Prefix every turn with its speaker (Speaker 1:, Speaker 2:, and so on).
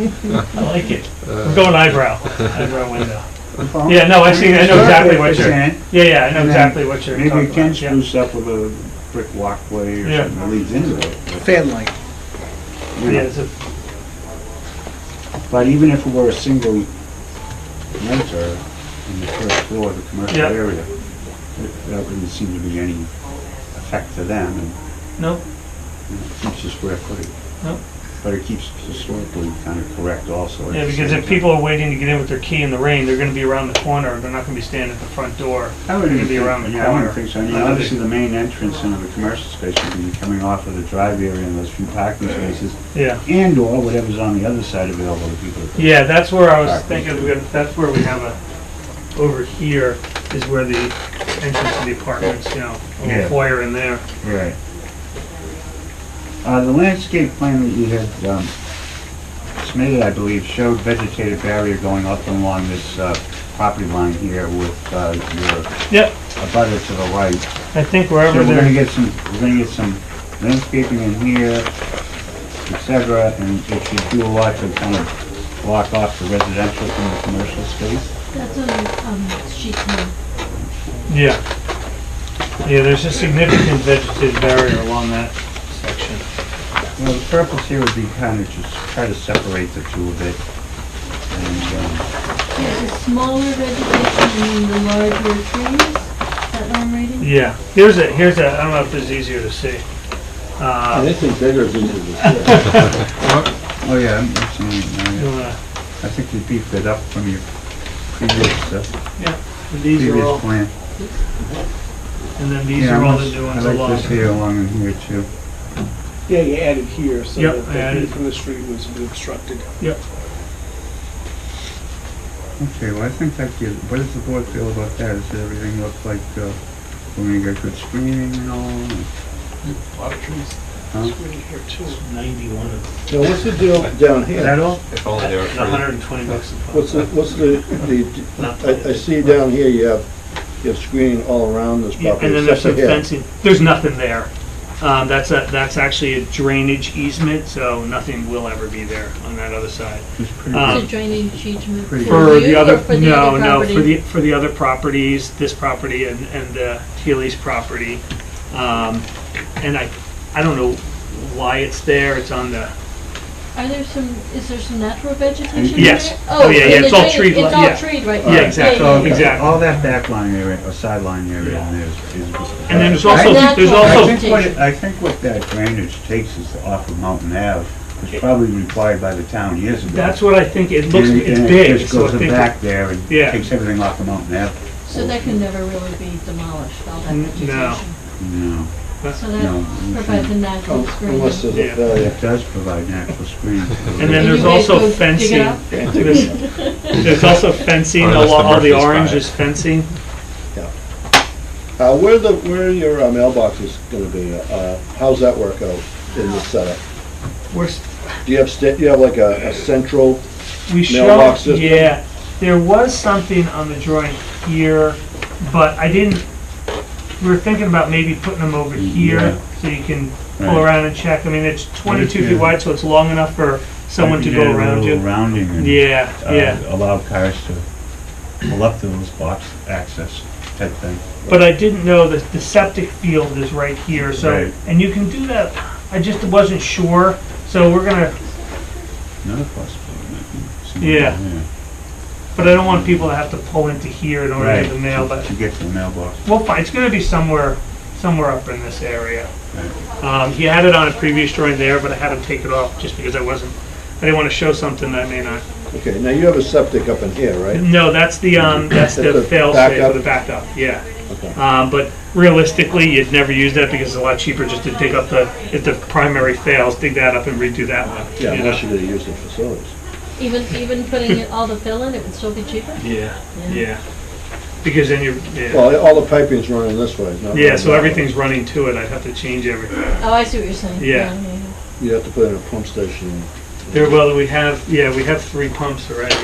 Speaker 1: I like it.
Speaker 2: Uh,
Speaker 1: We're going eyebrow, eyebrow window.
Speaker 2: Well,
Speaker 1: Yeah, no, I see, I know exactly what you're,
Speaker 2: percent.
Speaker 1: yeah, yeah, I know
Speaker 2: And then
Speaker 1: exactly what you're
Speaker 2: Maybe
Speaker 1: talking
Speaker 2: we can
Speaker 1: about. yeah.
Speaker 2: spruce up with a brick walkway or
Speaker 1: Yeah.
Speaker 2: something that leads into it.
Speaker 3: fan light.
Speaker 2: you
Speaker 1: Yeah,
Speaker 2: know.
Speaker 1: it's a-
Speaker 2: But even if it were a single renter in the first floor of the commercial
Speaker 1: Yeah.
Speaker 2: area, it- that wouldn't seem to be any effect to them and
Speaker 1: No,
Speaker 2: you know, it keeps the square footage.
Speaker 1: No.
Speaker 2: But it keeps historically kind of correct also. at
Speaker 1: yeah,
Speaker 2: the
Speaker 1: because
Speaker 2: same
Speaker 1: if people are waiting to get in with their key in the rain, they're gonna be around the corner, they're not gonna be standing at the front door.
Speaker 2: I wouldn't
Speaker 1: It'd be
Speaker 2: think-
Speaker 1: around the
Speaker 2: yeah, I wouldn't
Speaker 1: corner.
Speaker 2: think so. I mean,
Speaker 1: Another-
Speaker 2: obviously, the main entrance into the commercial space would be coming off of the drive area and those few parking spaces,
Speaker 1: Yeah,
Speaker 2: and/or whatever's on the other side available to people. to-
Speaker 1: yeah, that's where I was
Speaker 2: Back.
Speaker 1: thinking, we got- that's where we have a, over here is where the entrance to the apartments, you know, a
Speaker 2: Yeah.
Speaker 1: little foyer in there.
Speaker 2: Right. Uh, the landscape plan that you had, um, submitted, I believe, showed vegetative barrier going up and along this, uh, property line here with, uh, your
Speaker 1: Yep,
Speaker 2: abutter to the right.
Speaker 1: I think
Speaker 2: So
Speaker 1: wherever
Speaker 2: we're gonna
Speaker 1: they're,
Speaker 2: get some, we're gonna get some landscaping in here, et cetera, and it should do a lot to kind of block off the residential from the commercial space.
Speaker 4: That's on um, sheet one.
Speaker 1: yeah. Yeah, there's a significant vegetative barrier along that section.
Speaker 2: Well, the purpose here would be kind of just try to separate the two a bit. And, um,
Speaker 4: There's a smaller vegetation and the larger trees. Is that what I'm reading?
Speaker 1: Yeah, here's a, here's a, I don't know if this is easier to see. Uh,
Speaker 5: This is bigger than the,
Speaker 2: oh yeah, I'm, I'm seeing it now, yeah.
Speaker 1: you wanna-
Speaker 2: I think we beefed it up from your previous, uh,
Speaker 1: These are
Speaker 2: previous
Speaker 1: all,
Speaker 2: plan.
Speaker 1: and then these
Speaker 2: Yeah,
Speaker 1: are
Speaker 2: I
Speaker 1: all the
Speaker 2: must-
Speaker 1: new ones
Speaker 2: I like
Speaker 1: along.
Speaker 2: this here along in here too.
Speaker 3: Yeah, you added here, so
Speaker 1: Yep,
Speaker 3: that
Speaker 1: I
Speaker 3: the view
Speaker 1: added.
Speaker 3: from the street was obstructed.
Speaker 2: Okay, well, I think that gives, what does the board feel about that? Does everything look like, uh, we're gonna get good screening and all?
Speaker 3: A lot of trees.
Speaker 2: Huh?
Speaker 3: It's really here too.
Speaker 1: Ninety-one of
Speaker 5: now what's the deal down
Speaker 2: Is
Speaker 5: here?
Speaker 2: that all?
Speaker 6: If only they were free.
Speaker 1: hundred and twenty bucks a
Speaker 5: What's the,
Speaker 1: pop.
Speaker 5: what's the,
Speaker 1: Not
Speaker 5: the, I, I
Speaker 1: planted.
Speaker 5: see down here you have, you have screening all around this
Speaker 1: Yeah,
Speaker 5: property.
Speaker 1: and then there's some
Speaker 5: except for here.
Speaker 1: fencing, there's nothing there. Um, that's a, that's actually a drainage easement, so nothing will ever be there on that other side.
Speaker 2: It's pretty
Speaker 1: Um,
Speaker 4: Is it drainage easement for
Speaker 2: Pretty-
Speaker 1: For
Speaker 4: you
Speaker 1: the
Speaker 4: or
Speaker 1: other,
Speaker 4: for the
Speaker 1: no,
Speaker 4: other
Speaker 1: no, for
Speaker 4: property?
Speaker 1: the, for the other properties, this property and, and uh, Healy's property. Um, And I, I don't know why it's there, it's on the,
Speaker 4: Are there some, is there some natural vegetation in there?
Speaker 1: Yes. Oh, yeah,
Speaker 4: and
Speaker 1: yeah,
Speaker 4: the
Speaker 1: it's all
Speaker 4: drainage-
Speaker 1: tree-
Speaker 4: It's all
Speaker 1: yeah.
Speaker 4: treed right
Speaker 1: Yeah,
Speaker 4: now.
Speaker 1: exactly.
Speaker 2: So,
Speaker 4: yeah, yeah.
Speaker 1: Exactly.
Speaker 2: All that back line area, or sideline area in there is. is-
Speaker 1: and then there's also, there's
Speaker 4: Natural.
Speaker 2: I
Speaker 1: also,
Speaker 2: think what, it- I think what that drainage takes is off of Mountain Ave, was probably required by the town years ago.
Speaker 1: that's what I think, it looks,
Speaker 2: And-
Speaker 1: it's
Speaker 2: and it
Speaker 1: big,
Speaker 2: Just
Speaker 1: so I
Speaker 2: goes
Speaker 1: think.
Speaker 2: back there and
Speaker 1: Yeah.
Speaker 2: takes everything off of Mountain Ave.
Speaker 4: So that can never really be demolished, all that
Speaker 1: N- no.
Speaker 4: vegetation.
Speaker 2: No,
Speaker 4: So
Speaker 2: No,
Speaker 4: that
Speaker 2: we
Speaker 4: provides a natural
Speaker 5: Oh,
Speaker 4: screen.
Speaker 5: Unless there's
Speaker 1: Yeah.
Speaker 5: a failure.
Speaker 2: it does provide natural screening.
Speaker 1: And then
Speaker 4: Can
Speaker 1: there's
Speaker 4: you guys
Speaker 1: also
Speaker 4: go dig it
Speaker 1: fencing.
Speaker 4: up?
Speaker 1: There's there's also fencing,
Speaker 6: Or
Speaker 1: all
Speaker 6: unless the
Speaker 1: all the
Speaker 6: Murphy's
Speaker 1: orange
Speaker 6: buy it.
Speaker 1: is fencing.
Speaker 5: Uh, where the, where are your uh, mailboxes gonna be? Uh, how's that work out in the setup?
Speaker 1: We're, s-
Speaker 5: Do you have, sta- you have like a, a central,
Speaker 1: we show,
Speaker 5: Mailbox system?
Speaker 1: yeah, there was something on the drawing here, but I didn't, we were thinking about maybe putting them over here, so you can pull
Speaker 2: Right.
Speaker 1: around and check. I mean, it's twenty-two
Speaker 2: Yeah.
Speaker 1: feet wide, so it's long enough for someone to
Speaker 2: Maybe get
Speaker 1: go
Speaker 2: a
Speaker 1: around
Speaker 2: little
Speaker 1: you.
Speaker 2: Rounding and.
Speaker 1: Yeah,
Speaker 2: uh,
Speaker 1: yeah.
Speaker 2: Allow cars to pull up to those box access type thing.
Speaker 1: But I didn't know that the septic field is right here, so,
Speaker 2: Right.
Speaker 1: and you can do that, I just wasn't sure, so we're gonna,
Speaker 2: Another possibility. might be somewhere
Speaker 1: Yeah.
Speaker 2: down there.
Speaker 1: but I don't want people to have to pull into here in order to
Speaker 2: Right.
Speaker 1: get the mail,
Speaker 2: to-
Speaker 1: but
Speaker 2: To get to the mailbox.
Speaker 1: Well, fine, it's gonna be somewhere, somewhere up in this area.
Speaker 2: Right.
Speaker 1: Um, he had it on a previous drawing there, but I had him take it off just because I wasn't, I didn't wanna show something that I may not.
Speaker 5: okay, now you have a septic up in here, right?
Speaker 1: No, that's the, um, that's
Speaker 5: That's
Speaker 1: the
Speaker 5: the
Speaker 1: fail safe
Speaker 5: backup?
Speaker 1: for the backup, yeah.
Speaker 5: Okay.
Speaker 1: Um, but realistically, you'd never use that because it's a lot cheaper just to dig up the, if the primary fails, dig that up and redo that one.
Speaker 5: Yeah,
Speaker 1: you
Speaker 5: unless
Speaker 1: know?
Speaker 5: you're gonna use the facilities.
Speaker 4: Even, even putting it- all the fill in, it would still be cheaper?
Speaker 1: Yeah, yeah. Because then you're, yeah,
Speaker 5: Well, all the piping's running this way, not.
Speaker 1: yeah, so
Speaker 5: running that way.
Speaker 1: everything's running to it, I'd have to change everything.
Speaker 4: Oh, I see what you're saying.
Speaker 1: Yeah.
Speaker 5: You have to put in a pump station.
Speaker 1: There, well, we have, yeah, we have three pumps already.